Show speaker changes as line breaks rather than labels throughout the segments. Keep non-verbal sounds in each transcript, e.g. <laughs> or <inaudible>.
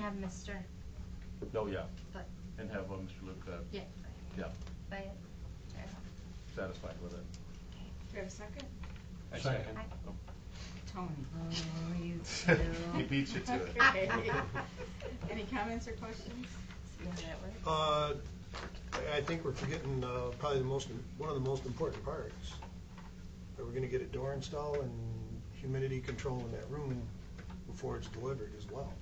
have Mr.
Oh, yeah,
But,
and have uh, Mr. Luke, uh,
yeah,
yeah,
but, <laughs> yeah.
satisfied with it.
Do you have a second?
I second.
<laughs>
Tony. Oh, you
He beats you to it.
Any comments or questions?
Uh, I- I think we're forgetting uh, probably the most, one of the most important parts. That we're gonna get a door install and humidity control in that room before it's delivered as well.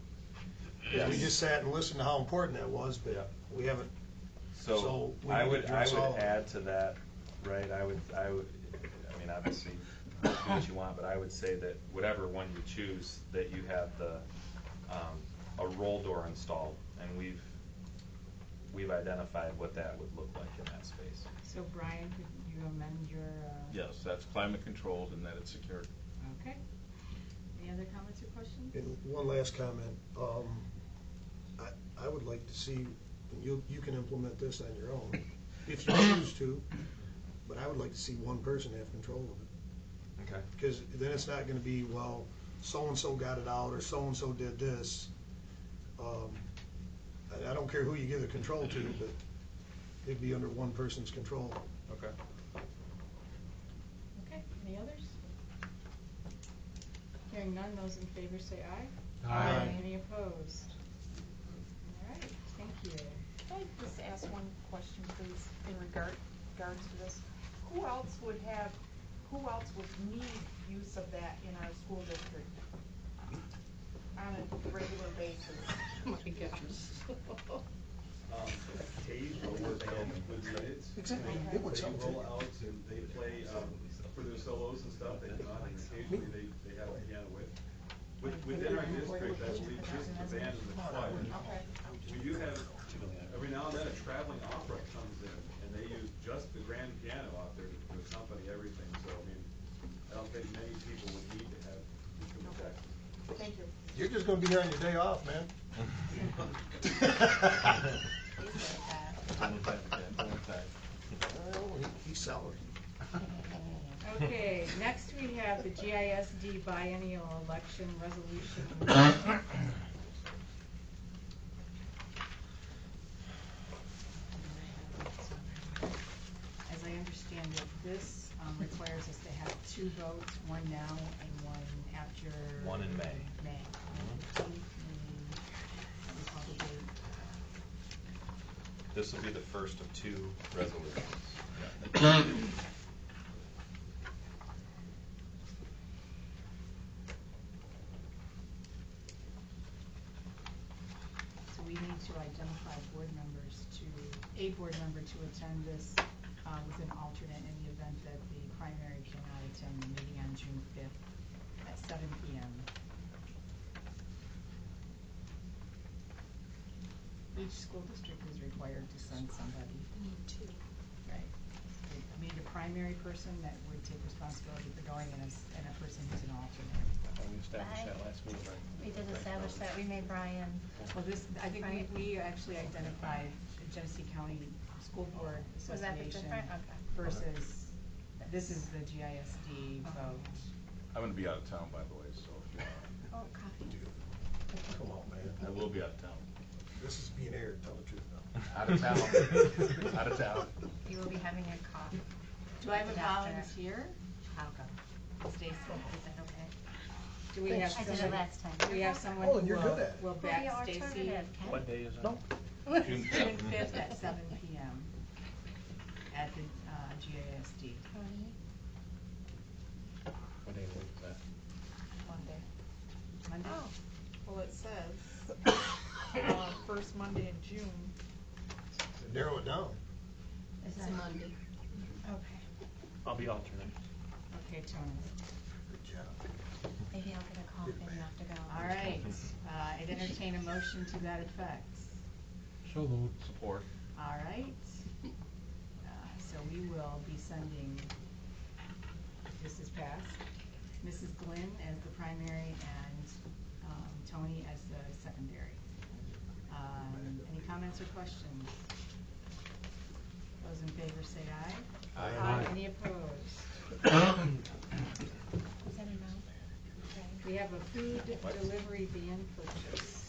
'Cause We just sat and listened to how important that was, but we haven't,
So
So we
I
need to
would, I
address all of
would
it.
add to that, right, I would, I would, I mean, obviously, do what you want, but I would say that whatever one you choose, that you have the, um, a roll door installed, and we've, we've identified what that would look like in that space.
So Brian, could you amend your, uh?
Yes, that's climate controlled and that it's secured.
Okay. Any other comments or questions?
and one last comment. Um, I, I would like to see, you, you can implement this on your own, if you choose to, but I would like to see one person have control of it.
Okay.
Because then it's not gonna be, well, so-and-so got it out, or so-and-so did this. Um, I, I don't care who you give the control to, but it'd be under one person's control.
Okay.
Okay, any others? Hearing none, those in favor say aye.
Aye. Aye.
Any opposed? All right, thank you.
Can I just ask one question, please, in regard, regards to this? Who else would have, who else would need use of that in our school district on a regular basis?
My gosh.
um, Cage rollers come with units.
Exactly.
They-
It would
They
sound
roll
good.
out and they play, um, for their solos and stuff, they come on and occasionally they, they have a piano with. with- Within our district, I believe just the band and the choir.
Okay.
We do have, every now and then a traveling opera comes in and they use just the grand piano out there to to accompany everything, so I mean, I don't think many people would need to have instruments actually.
Thank you.
You're just gonna be here on your day off, man.
Don't attack again, don't attack.
Well, Oh, he- He's salary.
Okay, next we have the GISD biennial election resolution. As I understand it, this um, requires us to have two votes, one now and one after.
One in May. Mm-hmm.
May. Mm, we call the date.
This will be the first of two resolutions.
So we need to identify board members to, a board member to attend this uh, with an alternate in the event that the primary cannot attend the meeting on June 5th at 7 PM. Each school district is required to send somebody. Right. We need a primary person that would take responsibility for going and a, s- and a person who's an alternate.
We established that last meeting, right?
We did establish that, we made Brian,
Well, this, I think we, we actually identified the Genesee County School Board
was that the
Association
different, okay.
versus, this is the GISD vote.
I'm gonna be out of town, by the way, so if you
Oh,
want,
copy.
Come on, man.
I will be out of town.
This is being aired, tell the truth now.
Out of town, out of town.
You will be having your coffee.
Do I have a
Doctor.
volunteer?
I'll go.
Stacy,
Is that okay?
do we have
I did it
someone,
last time.
do we have someone
Oh,
who
you're
will,
good at it.
will
Who are the
back Stacy?
alternative, Ken?
What day is it?
June
June fifth.
fifth at seven PM at the uh, GISD.
Tony?
What day is that?
Monday.
Monday?
Oh.
Well, it says, <coughs> uh, first Monday in June.
Narrow it down.
It's a Monday. Okay,
Okay, Tony.
Good job.
maybe I'll get a call if you have to go.
All right, Uh, I'd entertain a motion to that effect.
Support.
All right. Uh, So we will be sending, if this is passed, Mrs. Glenn as the primary and um, Tony as the secondary. Um, Any comments or questions? Those in favor say aye.
Aye.
Any opposed?
Is that a no? Okay.
We have a food delivery ban purchase.